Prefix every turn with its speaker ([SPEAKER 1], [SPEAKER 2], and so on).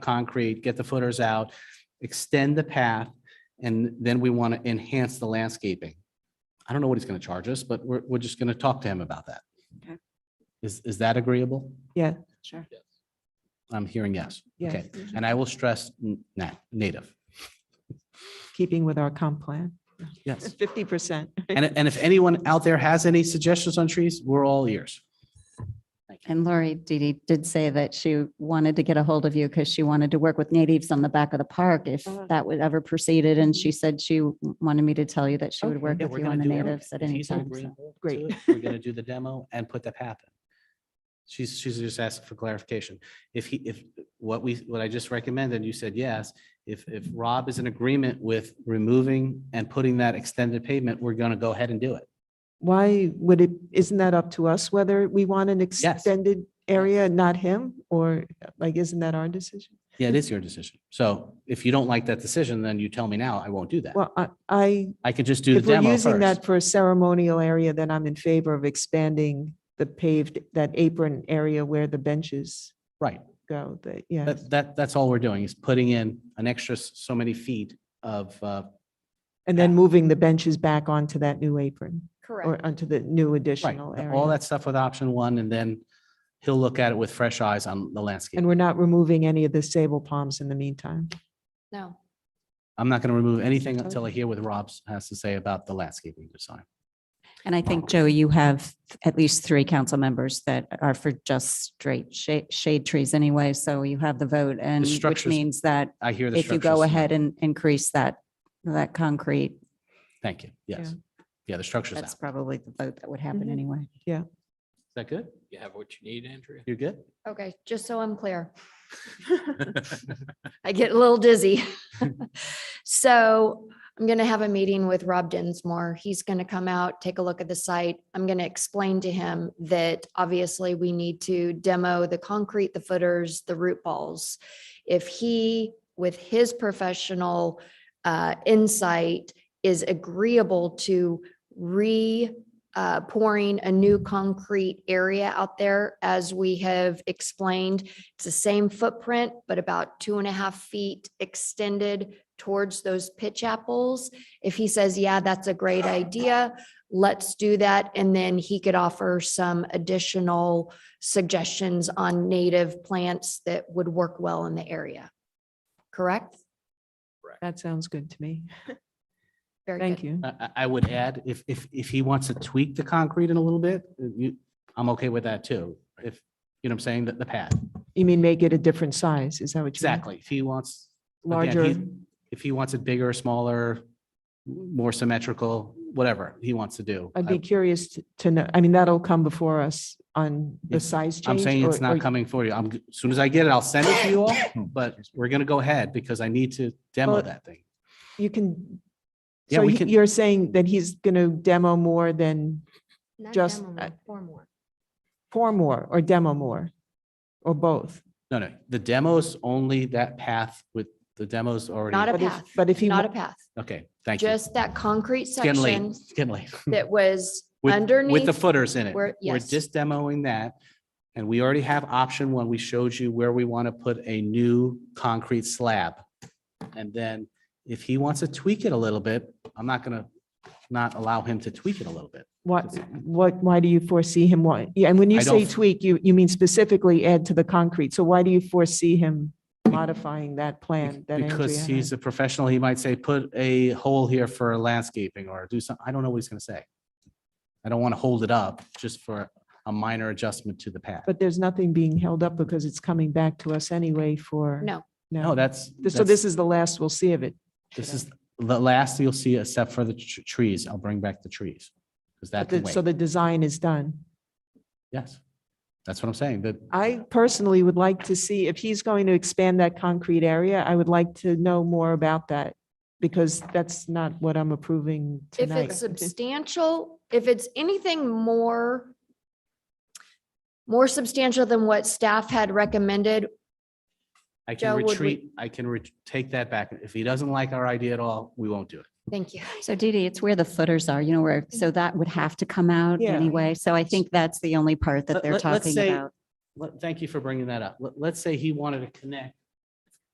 [SPEAKER 1] concrete, get the footers out, extend the path, and then we want to enhance the landscaping. I don't know what he's going to charge us, but we're, we're just going to talk to him about that.
[SPEAKER 2] Okay.
[SPEAKER 1] Is, is that agreeable?
[SPEAKER 3] Yeah,
[SPEAKER 2] Sure.
[SPEAKER 1] I'm hearing yes.
[SPEAKER 3] Yes.
[SPEAKER 1] Okay, and I will stress n- na- native.
[SPEAKER 3] keeping with our comp plan,
[SPEAKER 1] Yes.
[SPEAKER 3] fifty percent.
[SPEAKER 1] And, and if anyone out there has any suggestions on trees, we're all ears.
[SPEAKER 2] And Lori Didi did say that she wanted to get a hold of you because she wanted to work with natives on the back of the park if
[SPEAKER 3] Uh-huh. Mm-hmm.
[SPEAKER 2] that would ever proceeded. And she said she w- wanted me to tell you that she would
[SPEAKER 3] Okay.
[SPEAKER 2] work
[SPEAKER 1] Yeah,
[SPEAKER 2] with
[SPEAKER 1] we're
[SPEAKER 2] you
[SPEAKER 1] gonna
[SPEAKER 2] on the
[SPEAKER 1] do everything.
[SPEAKER 2] natives at
[SPEAKER 1] If
[SPEAKER 2] any
[SPEAKER 1] he's
[SPEAKER 2] time. so.
[SPEAKER 1] agreeable to
[SPEAKER 3] Great.
[SPEAKER 1] it, We're going to do the demo and put the path in. She's, she's just asking for clarification. If he, if what we, what I just recommended, you said yes. If, if Rob is in agreement with removing and putting that extended pavement, we're going to go ahead and do it.
[SPEAKER 3] Why would it, isn't that up to us whether we want an extended area, and not him? Or like, isn't that our decision?
[SPEAKER 1] Yeah, it is your decision. So if you don't like that decision, then you tell me now. I won't do that.
[SPEAKER 3] Well, I- I,
[SPEAKER 1] I could just do the
[SPEAKER 3] if we're
[SPEAKER 1] demo
[SPEAKER 3] using
[SPEAKER 1] first.
[SPEAKER 3] that for a ceremonial area, then I'm in favor of expanding the paved, that apron area where the benches
[SPEAKER 1] Right.
[SPEAKER 3] go, that, yeah.
[SPEAKER 1] That, that, that's all we're doing is putting in an extra s- so many feet of, uh,
[SPEAKER 3] And then moving the benches back onto that new apron or uh,
[SPEAKER 2] Correct.
[SPEAKER 3] onto the new
[SPEAKER 1] right,
[SPEAKER 3] additional area.
[SPEAKER 1] all that stuff with option one, and then he'll look at it with fresh eyes on the landscape.
[SPEAKER 3] And we're not removing any of the sable palms in the meantime.
[SPEAKER 2] No.
[SPEAKER 1] I'm not going to remove anything until I hear what Rob's has to say about the landscaping design.
[SPEAKER 2] And I think, Joey, you have at least three council members that are for just straight shade, shade trees anyway. So you have the vote and which
[SPEAKER 1] structures-
[SPEAKER 2] means that
[SPEAKER 1] I hear the.
[SPEAKER 2] if you
[SPEAKER 1] structure's
[SPEAKER 2] go
[SPEAKER 1] fine.
[SPEAKER 2] ahead and increase that, that concrete,
[SPEAKER 1] Thank you. Yes. Yeah, the structure's out.
[SPEAKER 2] that's
[SPEAKER 1] Is
[SPEAKER 2] probably the vote that would happen
[SPEAKER 3] Mhm.
[SPEAKER 2] anyway.
[SPEAKER 1] that good?
[SPEAKER 4] You have what you need, Andrea?
[SPEAKER 1] You're good?
[SPEAKER 5] Okay, just so I'm clear. I get a little dizzy. So I'm going to have a meeting with Rob Dinsmore. He's going to come out, take a look at the site. I'm going to explain to him that obviously we need to demo the concrete, the footers, the root balls. If he, with his professional uh, insight, is agreeable to re uh, pouring a new concrete area out there. As we have explained, it's the same footprint, but about two and a half feet extended towards those pitch apples. If he says, yeah, that's a great idea, let's do that. And then he could offer some additional suggestions on native plants that would work well in the area. Correct?
[SPEAKER 3] That sounds good to me.
[SPEAKER 5] Very good.
[SPEAKER 3] Thank you.
[SPEAKER 1] I, I- I would add, if, if, if he wants to tweak the concrete in a little bit, uh, you, I'm okay with that too. If, you know what I'm saying, the, the pad.
[SPEAKER 3] You mean make it a different size? Is that what you? mean?
[SPEAKER 1] Exactly. If he wants, Again,
[SPEAKER 3] Larger,
[SPEAKER 1] he's- if he wants it bigger, smaller, more symmetrical, whatever he wants to do.
[SPEAKER 3] I'd be curious t- to know, I mean, that'll come before us on the
[SPEAKER 1] It's-
[SPEAKER 3] size change.
[SPEAKER 1] I'm saying it's
[SPEAKER 3] or- Hmm.
[SPEAKER 1] not
[SPEAKER 3] or-
[SPEAKER 1] coming for you. I'm, g- as soon as I get it, I'll send it to you all, but we're gonna go ahead because I need to demo
[SPEAKER 3] Well,
[SPEAKER 1] that thing.
[SPEAKER 3] You can,
[SPEAKER 1] Yeah,
[SPEAKER 3] so
[SPEAKER 1] we
[SPEAKER 3] he-
[SPEAKER 1] can-
[SPEAKER 3] you're saying that he's going to demo more than
[SPEAKER 5] Not
[SPEAKER 3] Just,
[SPEAKER 5] demo,
[SPEAKER 3] uh,
[SPEAKER 5] form work.
[SPEAKER 3] pour more or demo more? Or both?
[SPEAKER 1] No, no, the demo's only that path with, the demo's already.
[SPEAKER 5] Not a
[SPEAKER 3] But if-
[SPEAKER 5] path.
[SPEAKER 3] But if he,
[SPEAKER 5] Not a
[SPEAKER 3] wa-
[SPEAKER 5] path,
[SPEAKER 1] Okay, thank you.
[SPEAKER 5] just that concrete
[SPEAKER 1] It's getting late,
[SPEAKER 5] section
[SPEAKER 1] it's getting late.
[SPEAKER 5] that was
[SPEAKER 1] Hmm. With- With the
[SPEAKER 5] underneath
[SPEAKER 1] footers in it.
[SPEAKER 5] where-
[SPEAKER 1] We're
[SPEAKER 5] yes.
[SPEAKER 1] just demoing that. And we already have option one. We showed you where we want to put a new concrete slab. And then if he wants to tweak it a little bit, I'm not gonna not allow him to tweak it a little bit.
[SPEAKER 3] what, what, why do you foresee him, wa- yeah, and when you
[SPEAKER 1] I don't
[SPEAKER 3] say
[SPEAKER 1] f-
[SPEAKER 3] tweak, you, you mean specifically add to the concrete. So why do you foresee him modifying that plan? that
[SPEAKER 1] Because
[SPEAKER 3] Andrea
[SPEAKER 1] he's
[SPEAKER 3] had?
[SPEAKER 1] a professional, he might say, put a hole here for landscaping or do some, I don't know what he's gonna say. I don't want to hold it up just for a minor adjustment to the path.
[SPEAKER 3] But there's nothing being held up because it's coming back to us anyway for.
[SPEAKER 5] No.
[SPEAKER 1] No, that's.
[SPEAKER 3] This- So
[SPEAKER 1] that's-
[SPEAKER 3] this is the last we'll see of it.
[SPEAKER 1] This is the last you'll see except for the tr- trees. I'll bring back the trees. Because that
[SPEAKER 3] But
[SPEAKER 1] can
[SPEAKER 3] the- So
[SPEAKER 1] wait.
[SPEAKER 3] the design is done.
[SPEAKER 1] Yes. That's what I'm saying. That
[SPEAKER 3] I personally would like to see if he's going to expand that concrete area, I would like to know more about that because that's not what I'm approving
[SPEAKER 5] if
[SPEAKER 3] tonight.
[SPEAKER 5] it's substantial, if it's anything more more substantial than what staff had recommended,
[SPEAKER 1] I
[SPEAKER 5] Joe,
[SPEAKER 1] can
[SPEAKER 5] would we-
[SPEAKER 1] retreat, I can ret- take that back. If he doesn't like our idea at all, we won't do it.
[SPEAKER 5] thank you.
[SPEAKER 2] So Dee Dee, it's where the footers are, you know, where,
[SPEAKER 1] Mm-hmm.
[SPEAKER 2] so that would have to come out
[SPEAKER 3] Yeah.
[SPEAKER 2] anyway. So I think that's the only part
[SPEAKER 1] Let-
[SPEAKER 2] that they're
[SPEAKER 1] let- let's
[SPEAKER 2] talking
[SPEAKER 1] say-
[SPEAKER 2] about.
[SPEAKER 1] Let- Thank you for bringing that up. Let- Let's say he wanted to connect